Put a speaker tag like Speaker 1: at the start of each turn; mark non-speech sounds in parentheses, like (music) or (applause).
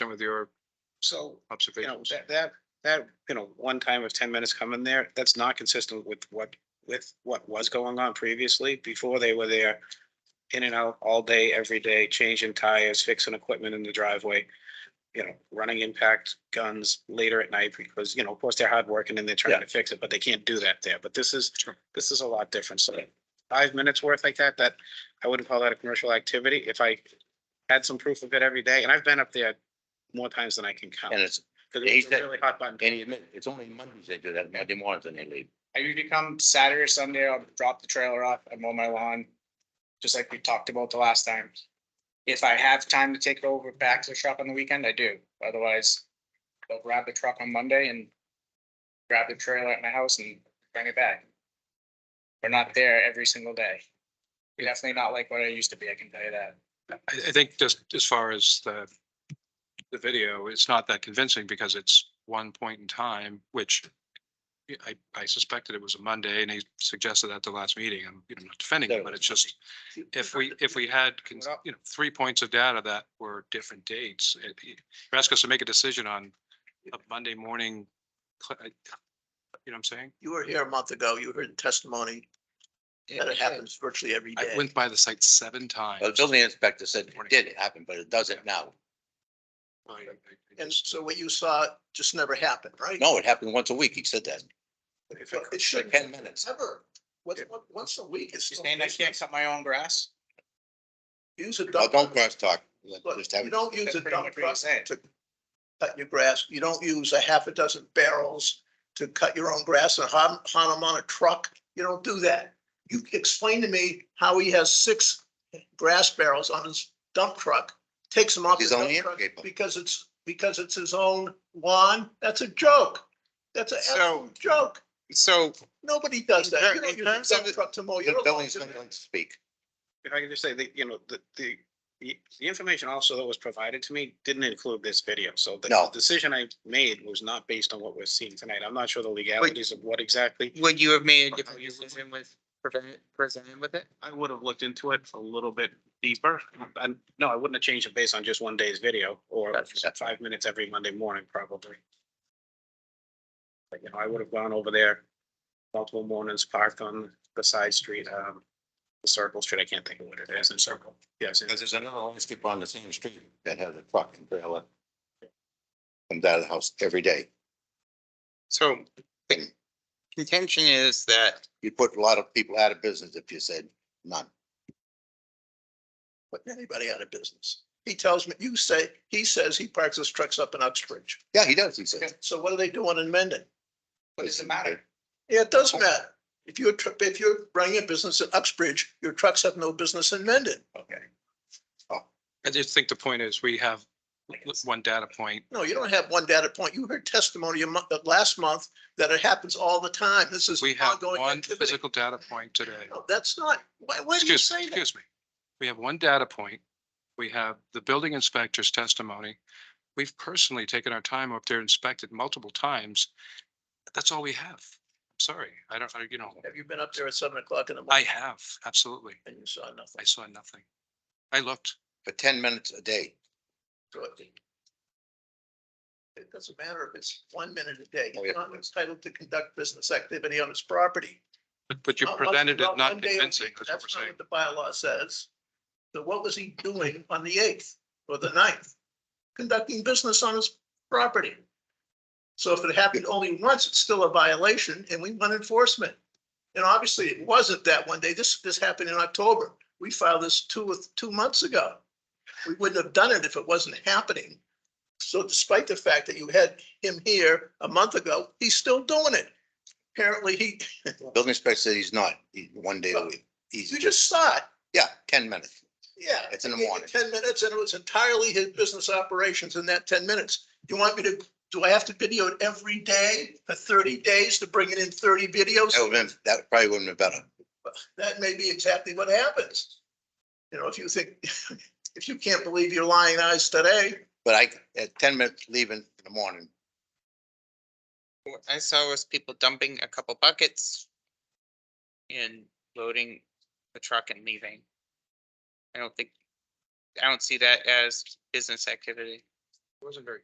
Speaker 1: with your
Speaker 2: So, you know,
Speaker 1: observations.
Speaker 2: that, that, that, you know, one time of ten minutes coming there, that's not consistent with what, with what was going on previously, before they were there. In and out all day, every day, changing tires, fixing equipment in the driveway, you know, running impact guns later at night, because, you know, of course, they're hardworking and they're trying to fix it, but they can't do that there, but this is,
Speaker 1: Sure.
Speaker 2: this is a lot different, so. Five minutes worth like that, that, I wouldn't call that a commercial activity, if I had some proof of it every day, and I've been up there more times than I can count.
Speaker 3: And it's,
Speaker 2: Cause
Speaker 3: He
Speaker 2: it's a
Speaker 3: said-
Speaker 2: really hot button.
Speaker 3: and he admitted, it's only Mondays they do that, Monday mornings and they leave.
Speaker 4: I usually come Saturday or Sunday, I'll drop the trailer off and mow my lawn, just like we talked about the last time. If I have time to take it over back to the shop on the weekend, I do. Otherwise, they'll grab the truck on Monday and grab the trailer at my house and bring it back. We're not there every single day. Definitely not like what I used to be, I can tell you that.
Speaker 1: I, I think just as far as the, the video, it's not that convincing because it's one point in time, which I, I suspected it was a Monday and he suggested that at the last meeting. I'm you know, not defending it, but it's just, if we, if we had, con- you know, three points of data that were different dates, it- you're asking us to make a decision on a Monday morning. cl- I- You know what I'm saying?
Speaker 5: You were here a month ago. You heard the testimony that it happens virtually every
Speaker 1: I
Speaker 5: day.
Speaker 1: went by the site seven times.
Speaker 3: Well, The building inspector said it did happen, but it doesn't now.
Speaker 1: I- I- I
Speaker 5: And
Speaker 1: just-
Speaker 5: so what you saw just never happened, right?
Speaker 3: No, it happened once a week, he said that,
Speaker 2: If
Speaker 5: Well,
Speaker 2: it-
Speaker 5: It
Speaker 3: for
Speaker 5: shouldn't
Speaker 3: ten minutes.
Speaker 5: ever. Once, once a week is.
Speaker 4: You're
Speaker 5: still
Speaker 4: saying I can't
Speaker 5: business.
Speaker 4: cut my own grass?
Speaker 5: Use a
Speaker 3: Oh,
Speaker 5: dump.
Speaker 3: don't cross talk. Let-
Speaker 5: Look,
Speaker 3: just have
Speaker 5: you
Speaker 3: it.
Speaker 5: don't use
Speaker 4: That's
Speaker 5: a
Speaker 4: pretty
Speaker 5: dump
Speaker 4: much what you're
Speaker 5: truck
Speaker 4: saying.
Speaker 5: to cut your grass. You don't use a half a dozen barrels to cut your own grass and hon, hon them on a truck. You don't do that. You explain to me how he has six grass barrels on his dump truck, takes them off. the
Speaker 3: He's
Speaker 5: dump
Speaker 3: only in
Speaker 5: truck
Speaker 3: April.
Speaker 5: Because it's, because it's his own lawn. That's a joke. That's an
Speaker 6: So-
Speaker 5: absolute joke.
Speaker 6: So
Speaker 5: Nobody does
Speaker 6: In
Speaker 5: that.
Speaker 6: ter-
Speaker 5: You
Speaker 6: in
Speaker 5: don't use a
Speaker 6: terms of
Speaker 5: dump
Speaker 6: the-
Speaker 5: truck to mow your
Speaker 3: The
Speaker 5: lawn.
Speaker 3: building inspector doesn't speak.
Speaker 2: If I could just say that, you know, the, the, the information also that was provided to me didn't include this video, so the
Speaker 3: No.
Speaker 2: the decision I made was not based on what we're seeing tonight. I'm not sure the legalities of what exactly.
Speaker 6: would you have made a different decision with prevent, presenting with it?
Speaker 2: I would have looked into it a little bit deeper. And no, I wouldn't have changed it based on just one day's video or
Speaker 3: Gotcha.
Speaker 2: five minutes every Monday morning, probably. But, you know, I would have gone over there multiple mornings, parked on the side street, um, the circle street. I can't think of what it is in circle. Yes. in-
Speaker 3: Because there's another landscaper on the same street that has a truck and trailer. Comes out of the house every day.
Speaker 6: So contention is that
Speaker 3: You put a lot of people out of business if you said none.
Speaker 5: put anybody out of business. He tells me, you say, he says he parks his trucks up in Uxbridge.
Speaker 3: Yeah, he does, he says.
Speaker 5: So what are they doing in Mendon?
Speaker 4: What does it matter?
Speaker 5: Yeah, it does matter. If you're, tr- if you're running a business at Uxbridge, your trucks have no business in Mendon.
Speaker 4: Okay.
Speaker 1: I just think the point is we have one data point
Speaker 5: No, you don't have one data point. You heard testimony a month, last month that it happens all the time. This is
Speaker 1: We have
Speaker 5: ongoing
Speaker 1: one
Speaker 5: activity.
Speaker 1: physical data point today.
Speaker 5: No, That's not, why, why do you
Speaker 1: Excuse,
Speaker 5: say that?
Speaker 1: excuse me. We have one data point. We have the building inspector's testimony. We've personally taken our time up there, inspected multiple times. That's all we have. I'm Sorry, I don't, I- you know,
Speaker 5: Have you been up there at seven o'clock in
Speaker 1: I
Speaker 5: the morning
Speaker 1: have, absolutely.
Speaker 5: and you saw nothing?
Speaker 1: I saw nothing. I looked.
Speaker 3: For ten minutes a day.
Speaker 5: So It it doesn't matter if it's one minute a day.
Speaker 3: Oh,
Speaker 5: He's
Speaker 3: yeah.
Speaker 5: not entitled to conduct business activity on his property.
Speaker 1: But, but you
Speaker 5: Not once-
Speaker 1: presented it
Speaker 5: one
Speaker 1: not
Speaker 5: day a
Speaker 1: convincing,
Speaker 5: week.
Speaker 1: that's what we're
Speaker 5: not
Speaker 1: saying.
Speaker 5: The bylaw says. So what was he doing on the eighth or the 9th? Conducting business on his property. So if it happened only once, it's still a violation and we want enforcement. And obviously it wasn't that one day. This, this happened in October. We filed this two, or two months ago. We wouldn't have done it if it wasn't happening. So despite the fact that you had him here a month ago, he's still doing it. Apparently he,
Speaker 3: Building inspector said he's not, he, one day a week.
Speaker 5: you
Speaker 3: He's,
Speaker 5: just saw it.
Speaker 3: yeah, ten minutes.
Speaker 5: Yeah.
Speaker 3: It's in the
Speaker 5: I gave you
Speaker 3: morning.
Speaker 5: Ten minutes and it was entirely his business operations in that ten minutes. You want me to, do I have to video it every day for thirty days to bring it in thirty videos?
Speaker 3: That would have been, that probably wouldn't have been better.
Speaker 5: That may be exactly what happens. You know, if you think, (laughs) if you can't believe your lying eyes today,
Speaker 3: But I, at ten minutes leaving in the morning,
Speaker 6: what I saw was people dumping a couple buckets and loading the truck and leaving. I don't think, I don't see that as business activity. Wasn't very